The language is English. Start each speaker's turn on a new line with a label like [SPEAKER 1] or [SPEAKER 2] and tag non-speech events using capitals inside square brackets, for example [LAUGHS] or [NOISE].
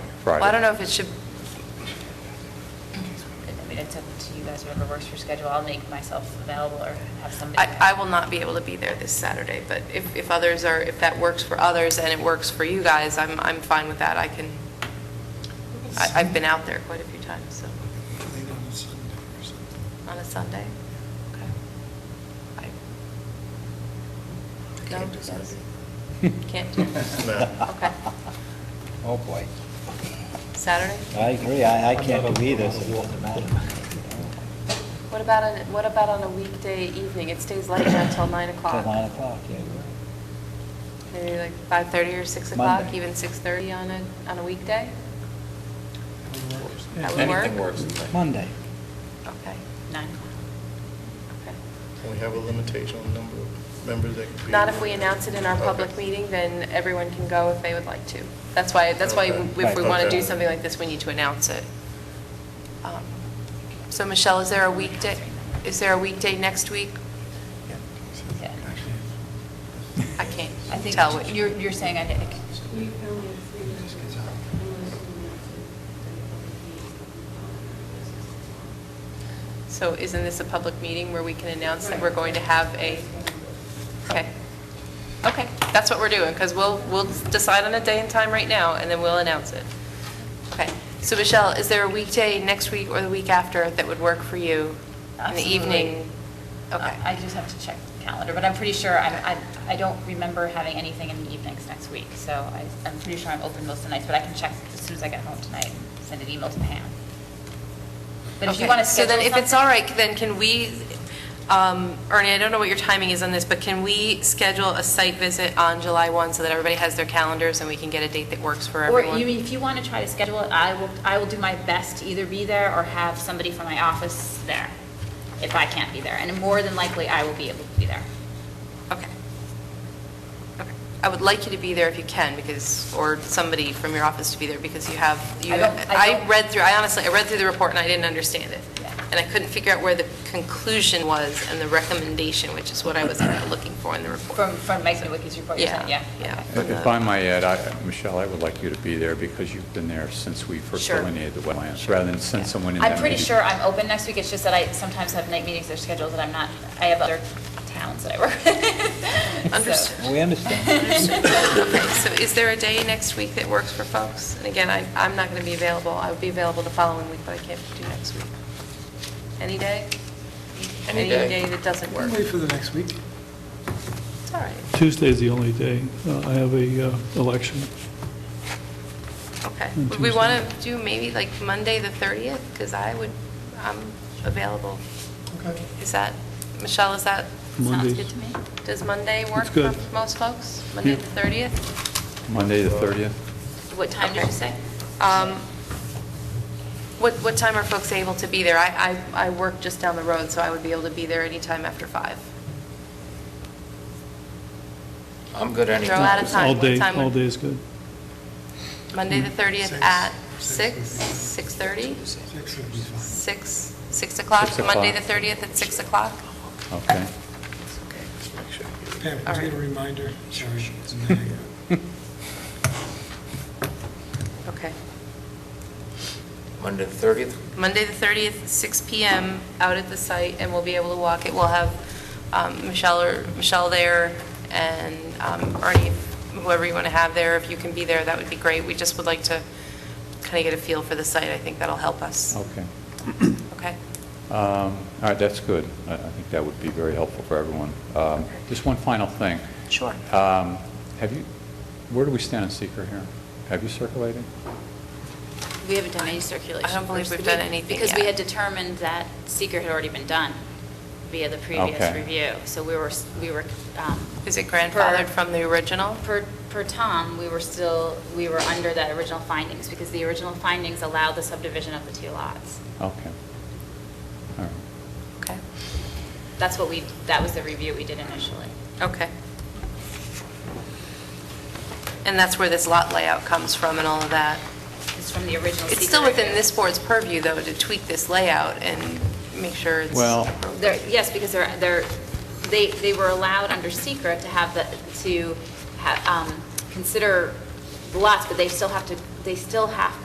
[SPEAKER 1] Friday.
[SPEAKER 2] Well, I don't know if it should,
[SPEAKER 3] I mean, it's up to you guys, whoever works your schedule. I'll make myself available or have somebody.
[SPEAKER 2] I, I will not be able to be there this Saturday, but if, if others are, if that works for others and it works for you guys, I'm, I'm fine with that. I can, I- I've been out there quite a few times, so,
[SPEAKER 4] Late on a Sunday or something.
[SPEAKER 2] on a Sunday. Okay. I- No,
[SPEAKER 4] Can't do
[SPEAKER 2] yes.
[SPEAKER 4] Sunday.
[SPEAKER 2] Can't do, okay.
[SPEAKER 5] Oh, boy.
[SPEAKER 2] Saturday?
[SPEAKER 5] I agree, I, I can't do either, so it doesn't matter.
[SPEAKER 6] What about, on- what about on a weekday evening? It stays light until 9
[SPEAKER 5] Till nine
[SPEAKER 6] o'clock.
[SPEAKER 5] o'clock, yeah.
[SPEAKER 6] Maybe like 5:30 or 6 o'clock,
[SPEAKER 5] Monday.
[SPEAKER 6] even 6:30 on a, on a weekday?
[SPEAKER 4] That works.
[SPEAKER 6] That would work?
[SPEAKER 7] Anything works.
[SPEAKER 5] Monday.
[SPEAKER 2] Okay.
[SPEAKER 3] Nine o'clock.
[SPEAKER 6] Okay.
[SPEAKER 8] Can we have a limitation on the number of members that can be?
[SPEAKER 6] Not if we announce it in our public
[SPEAKER 8] Okay.
[SPEAKER 6] meeting, then everyone can go if they would like to. That's why, that's why
[SPEAKER 8] Okay.
[SPEAKER 6] if we want to
[SPEAKER 8] Okay.
[SPEAKER 6] do something like
[SPEAKER 2] like this, we need to announce it. Um, So Michelle, is there a weekday, is there a weekday next week?
[SPEAKER 3] Yeah.
[SPEAKER 2] I can't
[SPEAKER 3] I think
[SPEAKER 2] tell what
[SPEAKER 3] you're, you're saying I did.
[SPEAKER 9] We only have three minutes. Unless we want to, then probably
[SPEAKER 6] So isn't this a public meeting where we can announce that we're going to have a, okay. Okay, that's what we're doing, because we'll, we'll decide on a day and time right now, and then we'll announce it. Okay, so Michelle, is there a weekday next week or the week after that would work for you? In the
[SPEAKER 3] Absolutely.
[SPEAKER 6] evening? Okay.
[SPEAKER 3] I just have to check the calendar, but I'm pretty sure, I, I, I don't remember having anything in the evenings next week. So I, I'm pretty sure I'm open most of the nights, but I can check as soon as I get home tonight, and send an email to Pam. But if you
[SPEAKER 2] Okay,
[SPEAKER 3] want to schedule
[SPEAKER 2] So then, if it's
[SPEAKER 3] something-
[SPEAKER 2] all right, then can we, um, Ernie, I don't know what your timing is on this, but can we schedule a site visit on July 1 so that everybody has their calendars and we can get a date that works for
[SPEAKER 3] Or
[SPEAKER 2] everyone?
[SPEAKER 3] you, if you want to try to schedule it, I will, I will do my best to either be there or have somebody from my office there, if I can't be there. And more than likely, I will be able to be there.
[SPEAKER 2] Okay. Okay. I would like you to be there if you can, because, or somebody from your office to be there, because you have, you,
[SPEAKER 3] I don't- I
[SPEAKER 2] I
[SPEAKER 3] don't-
[SPEAKER 2] read through, I honestly, I read through the report and I didn't understand it.
[SPEAKER 3] Yeah.
[SPEAKER 2] And I couldn't figure out where the conclusion was and the recommendation, which is what I was kind of looking for in the report.
[SPEAKER 3] From, from Mike Nowicki's report, you're saying, yeah?
[SPEAKER 2] Yeah,
[SPEAKER 3] okay.
[SPEAKER 2] yeah.
[SPEAKER 7] If I might add, I- Michelle, I would like you to be there because you've been there since we first
[SPEAKER 2] Sure.
[SPEAKER 7] delineated the wetlands, rather than send someone in that
[SPEAKER 3] I'm pretty
[SPEAKER 7] meeting.
[SPEAKER 3] sure I'm open next week, it's just that I sometimes have night meetings that are scheduled that I'm not, I have other towns that I work with. [LAUGHS] So-
[SPEAKER 2] Understood.
[SPEAKER 5] We understand.
[SPEAKER 2] Okay, so is there a day next week that works for folks? And again, I, I'm not going to be available, I would be available the following week, but I can't do next week. Any day?
[SPEAKER 7] Any day.
[SPEAKER 2] Any day that doesn't work.
[SPEAKER 4] We'll Wait for the next week.
[SPEAKER 2] It's all right.
[SPEAKER 10] Tuesday's the only day uh, I have a uh, election.
[SPEAKER 2] Okay.
[SPEAKER 10] On
[SPEAKER 2] Would we want to
[SPEAKER 10] Tuesday.
[SPEAKER 2] do maybe like Monday, the 30th? Because I would, I'm available.
[SPEAKER 4] Okay.
[SPEAKER 2] Is that, Michelle, is that,
[SPEAKER 3] Sounds
[SPEAKER 10] Mondays.
[SPEAKER 3] good to me.
[SPEAKER 2] does Monday work
[SPEAKER 10] It's
[SPEAKER 2] for
[SPEAKER 10] good.
[SPEAKER 2] most folks? Monday,
[SPEAKER 10] Yeah.
[SPEAKER 2] the 30th?
[SPEAKER 7] Monday, the 30th?
[SPEAKER 3] What time did
[SPEAKER 2] Okay.
[SPEAKER 3] you say?
[SPEAKER 2] Um, What, what time are folks able to be there? I, I, I work just down the road, so I would be able to be there anytime after five.
[SPEAKER 7] I'm good
[SPEAKER 2] anytime. Throw out a time.
[SPEAKER 10] All
[SPEAKER 2] What
[SPEAKER 10] day,
[SPEAKER 2] time would-
[SPEAKER 10] all day is good.
[SPEAKER 2] Monday, the 30th
[SPEAKER 4] Six.
[SPEAKER 2] at
[SPEAKER 4] Six.
[SPEAKER 2] 6, 6:30?
[SPEAKER 4] Six would be fine.
[SPEAKER 2] 6, 6 o'clock?
[SPEAKER 7] Six
[SPEAKER 2] Monday, the
[SPEAKER 7] o'clock.
[SPEAKER 2] 30th at 6 o'clock?
[SPEAKER 7] Okay.
[SPEAKER 8] Just make sure.
[SPEAKER 4] Pam,
[SPEAKER 2] All
[SPEAKER 4] can
[SPEAKER 2] right.
[SPEAKER 4] you get a reminder? Sorry. it's a minute ago.
[SPEAKER 2] Okay.
[SPEAKER 7] Monday, the 30th?
[SPEAKER 2] Monday, the 30th, 6 PM, out at the site, and we'll be able to walk it. We'll have um, Michelle or, Michelle there, and um, Ernie, whoever you want to have there, if you can be there, that would be great. We just would like to kind of get a feel for the site. I think that'll help us.
[SPEAKER 7] Okay.
[SPEAKER 2] Okay?
[SPEAKER 7] Um, All right, that's good. I I think that would be very helpful for everyone. Um, Just one final thing.
[SPEAKER 2] Sure.
[SPEAKER 7] Um, Have you, where do we stand on seeker here? Have you circulated?
[SPEAKER 3] We haven't done any circulation.
[SPEAKER 2] I don't believe
[SPEAKER 3] first.
[SPEAKER 2] we've done
[SPEAKER 3] We-
[SPEAKER 2] anything
[SPEAKER 3] Because we
[SPEAKER 2] yet.
[SPEAKER 3] had determined that seeker had already been done via the previous
[SPEAKER 7] Okay.
[SPEAKER 3] review. So we were, s- we were. um,
[SPEAKER 2] Is it grandfathered
[SPEAKER 3] per-
[SPEAKER 2] from the original?
[SPEAKER 3] Per, per Tom, we were still, we were under that original findings because the original findings allowed the subdivision of the two lots.
[SPEAKER 7] Okay. All right.
[SPEAKER 2] Okay.
[SPEAKER 3] That's what we, that was the review we did initially.
[SPEAKER 2] Okay. And that's where this lot layout comes from and all of that?
[SPEAKER 3] It's from the original seeker.
[SPEAKER 2] It's still within
[SPEAKER 3] review.
[SPEAKER 2] this board's purview, though, to tweak this layout and make sure it's...
[SPEAKER 7] Well-
[SPEAKER 3] They're, yes, because they're, they're, they, they were allowed under secret to have the, to ha um, consider the lots, but they still have to, they still have